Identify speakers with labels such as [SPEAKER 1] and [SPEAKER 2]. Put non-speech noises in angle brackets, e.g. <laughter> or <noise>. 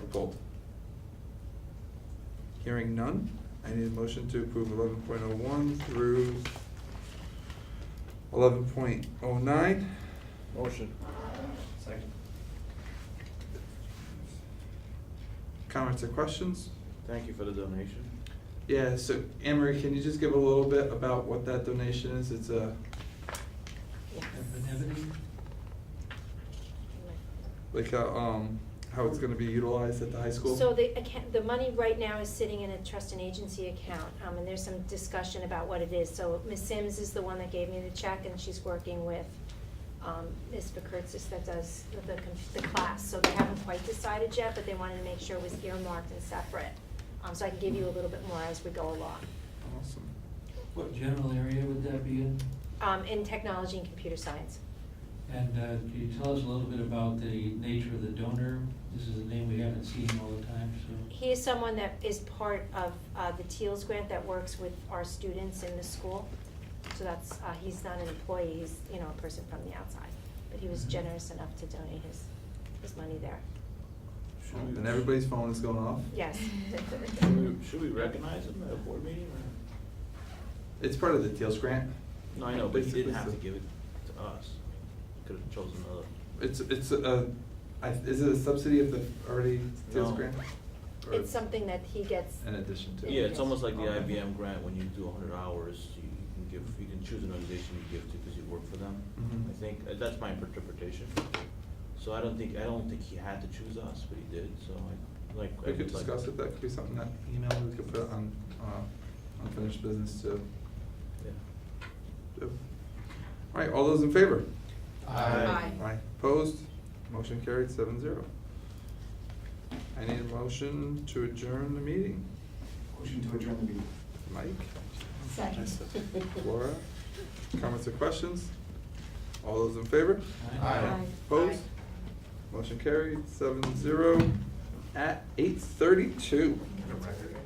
[SPEAKER 1] Pulled. Hearing none, I need a motion to approve eleven point oh one through eleven point oh nine.
[SPEAKER 2] Motion. Second.
[SPEAKER 1] Comments or questions?
[SPEAKER 2] Thank you for the donation.
[SPEAKER 1] Yeah, so Anne Marie, can you just give a little bit about what that donation is? It's a, like a, um, how it's gonna be utilized at the high school?
[SPEAKER 3] So the account, the money right now is sitting in a trust and agency account, um, and there's some discussion about what it is. So Ms. Sims is the one that gave me the check, and she's working with, um, Ms. Bakurtzis that does the, the con- the class. So they haven't quite decided yet, but they wanted to make sure it was earmarked and separate. Um, so I can give you a little bit more as we go along.
[SPEAKER 1] Awesome.
[SPEAKER 4] What general area would that be in?
[SPEAKER 3] Um, in technology and computer science.
[SPEAKER 4] And uh, can you tell us a little bit about the nature of the donor? This is a name we haven't seen all the time, so.
[SPEAKER 3] He is someone that is part of uh, the TEALS grant that works with our students in the school. So that's, uh, he's not an employee, he's, you know, a person from the outside. But he was generous enough to donate his, his money there.
[SPEAKER 1] And everybody's phone is going off? <laughs>
[SPEAKER 3] Yes. <laughs>
[SPEAKER 2] Should we- should we recognize him at a board meeting or?
[SPEAKER 1] It's part of the Teals grant.
[SPEAKER 2] No, I know, but he
[SPEAKER 1] Basically,
[SPEAKER 2] didn't have
[SPEAKER 1] so-
[SPEAKER 2] to give it to us. Could have chosen another.
[SPEAKER 1] It's, it's a, I, is it a subsidy of the already Teals
[SPEAKER 2] No.
[SPEAKER 1] grant? Or
[SPEAKER 3] It's something that he gets.
[SPEAKER 1] In addition to?
[SPEAKER 2] Yeah, it's almost like the
[SPEAKER 1] Okay.
[SPEAKER 2] IBM grant, when you do hundred hours, you can give, you can choose an organization you give to because you work for them.
[SPEAKER 1] Mhm.
[SPEAKER 2] I think, uh, that's my interpretation. So I don't think, I don't think he had to choose us, but he did, so I, like. I
[SPEAKER 1] We could
[SPEAKER 2] would like-
[SPEAKER 1] discuss it, that could be something that email we could put on, uh, unfinished business to
[SPEAKER 2] Yeah.
[SPEAKER 1] do. All right, all those in favor?
[SPEAKER 2] Aye.
[SPEAKER 1] Aye. Opposed? Motion carried seven zero. I need a motion to adjourn the meeting.
[SPEAKER 5] Motion to adjourn the meeting.
[SPEAKER 1] Mike? Laura? Comments or questions? All those in favor?
[SPEAKER 5] Aye.
[SPEAKER 1] Opposed? Motion carried seven zero at eight thirty-two.
[SPEAKER 5] Get a record.